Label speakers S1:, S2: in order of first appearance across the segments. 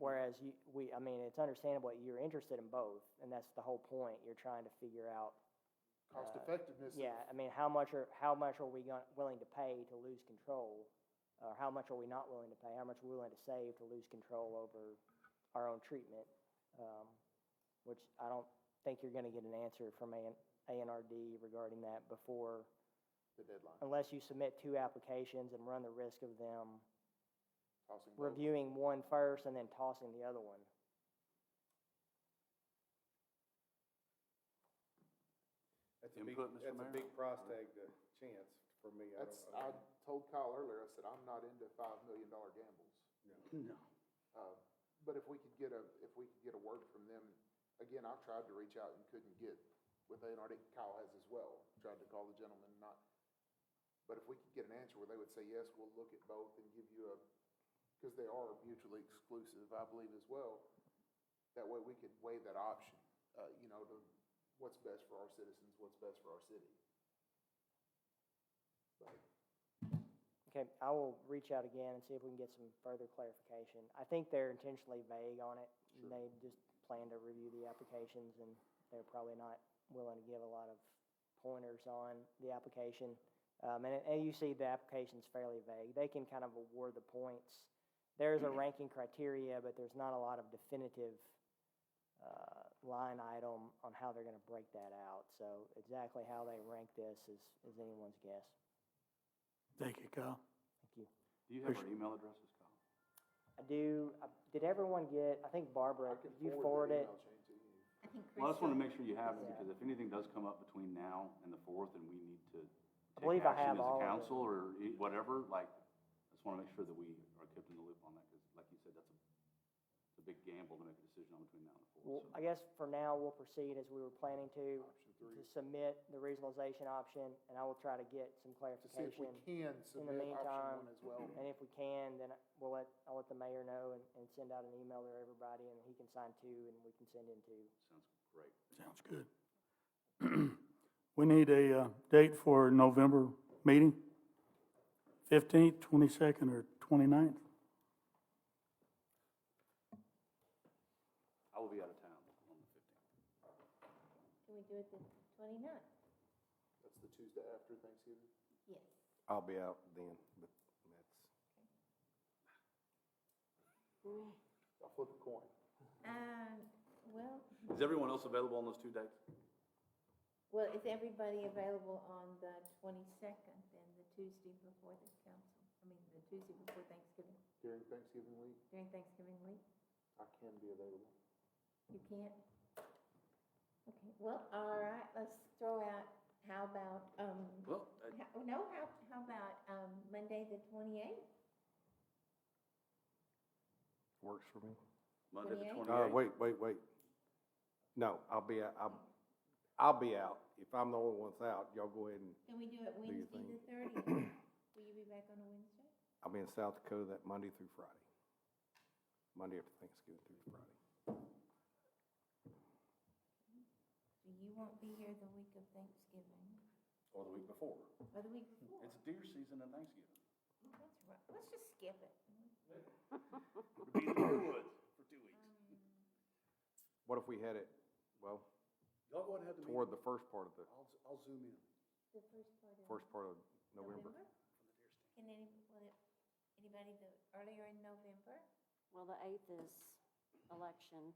S1: because you, we, I mean, it's understandable that you're interested in both, and that's the whole point. You're trying to figure out,
S2: Cost effectiveness. of-
S1: yeah, I mean, how much are, how much are we going, willing to pay to lose control? Or how much are we not willing to pay? How much are we willing to save to lose control over our own treatment? Um, which I don't think you're gonna get an answer from A, ANRD regarding that before
S2: The deadline.
S1: unless you submit two applications and run the risk of them
S2: Tossing both.
S1: reviewing one first and then tossing the other one.
S3: That's a big,
S4: Input, Mr.
S3: that's a
S4: Mayor?
S3: big price tag to chance for me. I
S2: That's,
S3: don't-
S2: I
S3: don't-
S2: told Kyle earlier, I said, I'm not into five million dollar gambles.
S4: No.
S2: Uh, But if we could get a, if we could get a word from them, again, I've tried to reach out and couldn't get with ANRD, Kyle has as well, tried to call the gentleman, not. But if we could get an answer where they would say, yes, we'll look at both and give you a, because they are mutually exclusive, I believe as well. That way we could weigh that option, uh, you know, to what's best for our citizens, what's best for our city. But
S1: Okay, I will reach out again and see if we can get some further clarification. I think they're intentionally vague on it. They just plan to review the applications and they're probably not willing to give a lot of pointers on the application. Um, and, and you see the application's fairly vague. They can kind of award the points. There's a ranking criteria, but there's not a lot of definitive, uh, line item on how they're gonna break that out. So exactly how they rank this is, is anyone's guess.
S5: Thank you, Kyle.
S1: Thank you.
S4: Do you have our email addresses, Kyle?
S1: I do. I- Did everyone get, I think
S2: I
S1: Barbara,
S2: can
S1: did you
S2: forward
S1: forward
S2: the
S1: it?
S2: email chain to you.
S6: I think
S4: Well, I just want to
S6: Crystal,
S4: make sure you have it,
S1: Yeah.
S4: because if anything does come up between now and the fourth, and we need to take
S1: believe I have
S4: action as
S1: all
S4: a
S1: of it.
S4: council or e- whatever, like, I just want to make sure that we are kept in the loop on that, because like you said, that's a, it's a big gamble to make a decision on between now and the
S1: Well,
S4: fourth.
S1: I guess for now, we'll proceed as we were planning to, to submit the regionalization option, and I will try to get some
S2: to see if we
S1: clarification.
S2: can submit option one
S1: meantime- Mm-hmm.
S2: as well.
S1: And if we can, then we'll let, I'll let the mayor know and, and send out an email to everybody, and he can sign two, and we can send in two.
S4: So, Sounds great.
S5: Sounds good. We need a uh, date for November meeting, 15th, 22nd, or 29th.
S4: I will be out of town on the fifteenth.
S6: can we do it the twenty-ninth?
S2: That's the Tuesday after Thanksgiving.
S6: Yes.
S3: I'll be out then, but that's.
S2: I'll flip a coin.
S6: Um, well,
S4: Is everyone else available on those two dates?
S6: well, is everybody available on the twenty-second and the Tuesday before the council? I mean, the Tuesday before Thanksgiving,
S2: During Thanksgiving week,
S6: during Thanksgiving week?
S2: I can be available.
S6: You can't? Okay, well, all right, let's throw out, how about, um,
S4: Well, I-
S6: how- no, how, how about, um, Monday the twenty-eighth?
S3: Works for me.
S4: Monday the
S6: 28th?
S4: twenty-eighth.
S3: Uh, wait, wait, wait. No, I'll be, out. I'll, I'll be out. If I'm the only one that's out, y'all go ahead and,
S6: Can we do it Wednesday the
S3: thing.
S6: thirtieth? Will you be back on a Wednesday?
S3: I'll be in South Dakota that Monday through Friday. Monday after Thanksgiving through Friday.
S6: So you won't be here the week of Thanksgiving,
S4: Or the week before.
S6: or the week before?
S4: It's deer season and Thanksgiving.
S6: That's right, let's just skip it.
S4: We'll be in the woods for two weeks.
S6: Um,
S3: What if we had it, well,
S4: Y'all go ahead and have the meeting.
S3: toward the first part of the,
S4: I'll, I'll zoom in.
S6: The first part of.
S3: first part of November?
S6: Can any, will it, anybody do earlier in November?
S7: Well, the eighth is election.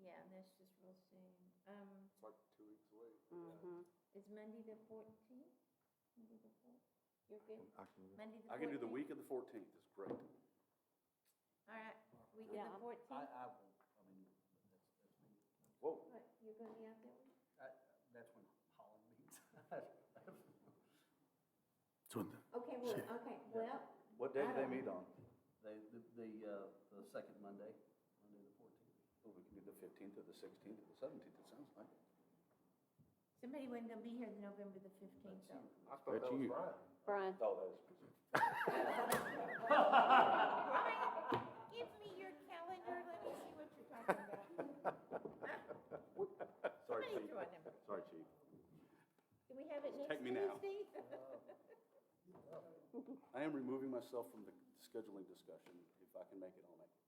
S6: Yeah, that's just real soon. Um,
S2: It's like two weeks away.
S7: Mhm.
S6: is Monday the fourteenth? Monday the fourth? You're good?
S3: I can-
S6: Monday the fourteenth?
S4: I can do the week of the fourteenth, it's great.
S6: All right, week of
S7: Yeah,
S6: the
S7: I'm-
S6: fourteenth,
S4: Whoa,
S6: but you're gonna be out that week?
S4: that's when Holland meets.
S5: So the-
S6: Okay, well, okay, well,
S4: What day do
S6: I
S4: they
S6: don't-
S4: meet on?
S8: They, the, the, uh, the second Monday, Monday the fourteenth.
S4: Well, we can do the fifteenth or the sixteenth or the seventeenth, it sounds like.
S6: somebody wasn't gonna be here the November the fifteenth though.
S2: I thought that
S3: That's
S2: was
S3: you.
S2: Brian.
S7: Brian,
S4: Oh, that is.
S6: Brian, give me your calendar, let me see what you're talking about.
S4: Sorry,
S6: Somebody
S4: chief.
S6: throw a number.
S4: Sorry, chief.
S6: Can we have it next
S4: Take me now.
S6: Tuesday?
S4: I am removing myself from the scheduling discussion. If I can make it, I'll make it.